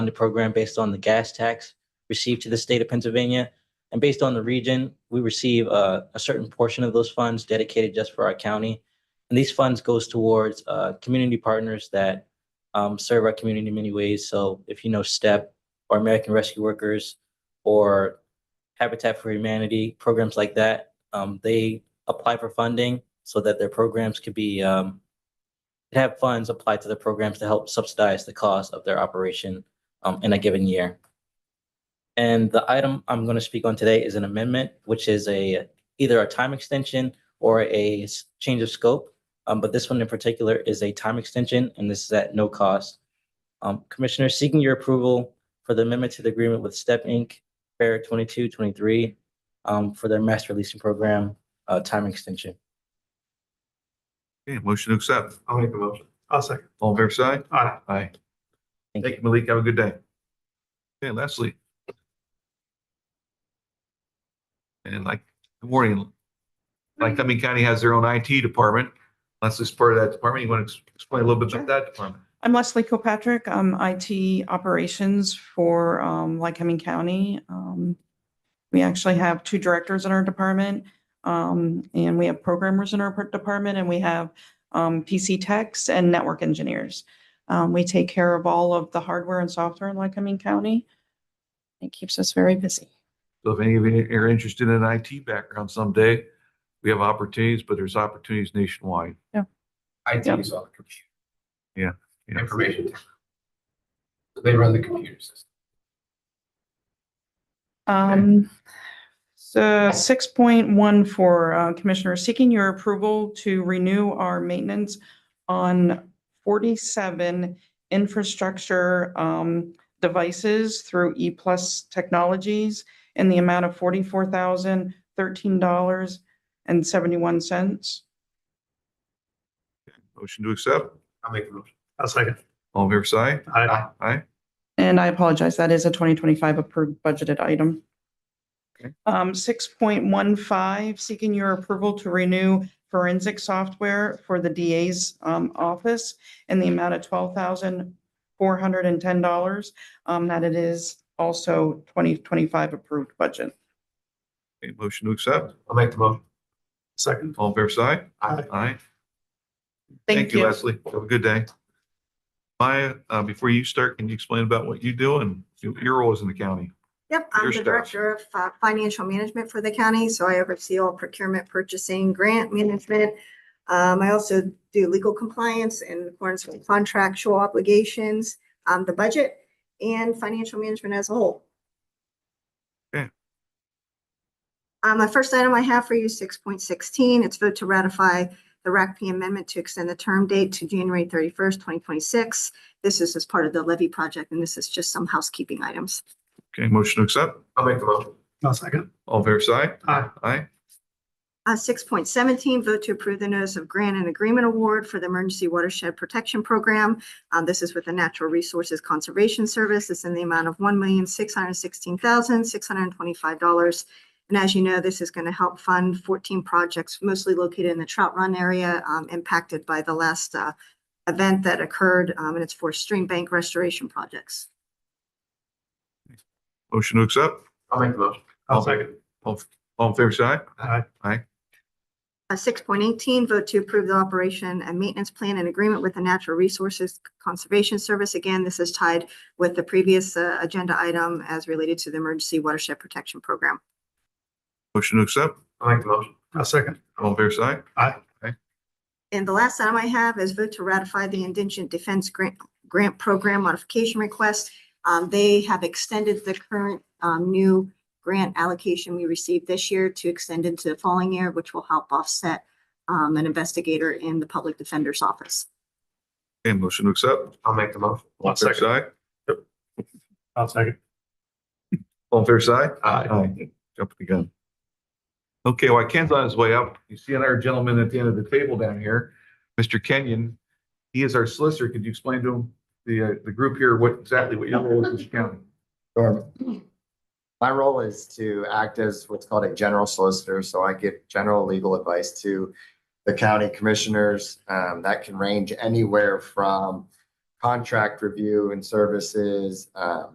funded program based on the gas tax received to the state of Pennsylvania. And based on the region, we receive uh, a, a certain portion of those funds dedicated just for our county. And these funds goes towards, uh, community partners that, um, serve our community in many ways. So if you know STEP or American Rescue Workers or Habitat for Humanity, programs like that, um, they apply for funding so that their programs could be, um, could have funds applied to the programs to help subsidize the cost of their operation um, in a given year. And the item I'm going to speak on today is an amendment, which is a either a time extension or a s- change of scope. Um, But this one in particular is a time extension, and this is at no cost. Um, Commissioner, seeking your approval for the amendment to the agreement with Step Inc. Fair 2223 um, for their master leasing program, uh, time extension. Okay, motion to accept. I'll make a motion. I'll second. All in favor, say aye. Aye. Aye. Thank Thank you. you, Malik. Have a good day. Okay, Leslie. And like, good morning. Like Cumming County has their own IT department. Leslie's part of that department. You want to explain a little bit about that department? I'm Leslie Kilpatrick. I'm IT operations for um, Lycoming County. Um, We actually have two directors in our department, um, and we have programmers in our per- department, and we have um, PC techs and network engineers. Um, We take care of all of the hardware and software in Lycoming County. It keeps us very busy. So if any of you are interested in an IT background someday, we have opportunities, but there's opportunities nationwide. Yep. IT is on the computer, you know. information. technology. So They run the computer system. Um, so six point one for uh, Commissioner, seeking your approval to renew our maintenance on forty-seven infrastructure um devices through E Plus Technologies in the amount of forty-four thousand thirteen dollars and seventy-one cents. Motion to accept. I'll make a motion. I'll second. All in favor, say aye. Aye. Aye. And I apologize, that is a twenty twenty-five approved budgeted item. Okay. Um, six point one five, seeking your approval to renew forensic software for the DA's um office in the amount of twelve thousand four hundred and ten dollars. Um, that it is also twenty twenty-five approved budget. Okay, motion to accept. I'll make the motion. Second. All in favor, say aye. Aye. Aye. Leslie. Have a good day. Maya, uh, before you start, can you explain about what you do and your role is in the county? Yep, Your I'm the staff. Director of uh, Financial Management for the county, so I oversee all procurement, purchasing, grant management. Um, I also do legal compliance in accordance with contractual obligations, um, the budget, and financial management as a whole. Okay. Um, my first item I have for you, six point sixteen, it's vote to ratify the RACP amendment to extend the term date to January thirty-first, twenty twenty-six. This is as part of the levy project, and this is just some housekeeping items. Okay, motion to accept. I'll make the motion. I'll second. All in favor, say aye. Aye. Aye. Uh, six point seventeen, vote to approve the notice of grant and agreement award for the Emergency Watershed Protection Program. Um, this is with the Natural Resources Conservation Service. It's in the amount of one million, six hundred sixteen thousand, six hundred twenty-five dollars. And as you know, this is going to help fund fourteen projects mostly located in the Trout Run area, um, impacted by the last, uh, event that occurred, um, and it's for stream bank restoration projects. Motion to accept. I'll make the motion. I'll second. All, all in favor, say aye. Aye. six point eighteen, vote to approve the operation and maintenance plan in agreement with the Natural Resources Conservation Service. Again, this is tied with the previous uh, agenda item as related to the Emergency Watershed Protection Program. Motion to accept. I'll make the motion. I'll second. All in favor, say aye. And the last item I have is vote to ratify the Indigent Defense Grant, Grant Program Modification Request. Um, they have extended the current, um, new grant allocation we received this year to extend into the following year, which will help offset, um, an investigator in the Public Defender's Office. Okay, motion to accept. I'll make the motion. All in favor, say aye. I'll second. All in favor, say aye. Aye. Aye. Jump the gun. Okay, while Ken's on his way up, you see another gentleman at the end of the table down here, Mr. Kenyon. He is our solicitor. Could you explain to him, the, uh, the group here, what exactly what your role is in the county? Sure. My role is to act as what's called a general solicitor, so I give general legal advice to the county commissioners. Um, that can range anywhere from contract review and services, um,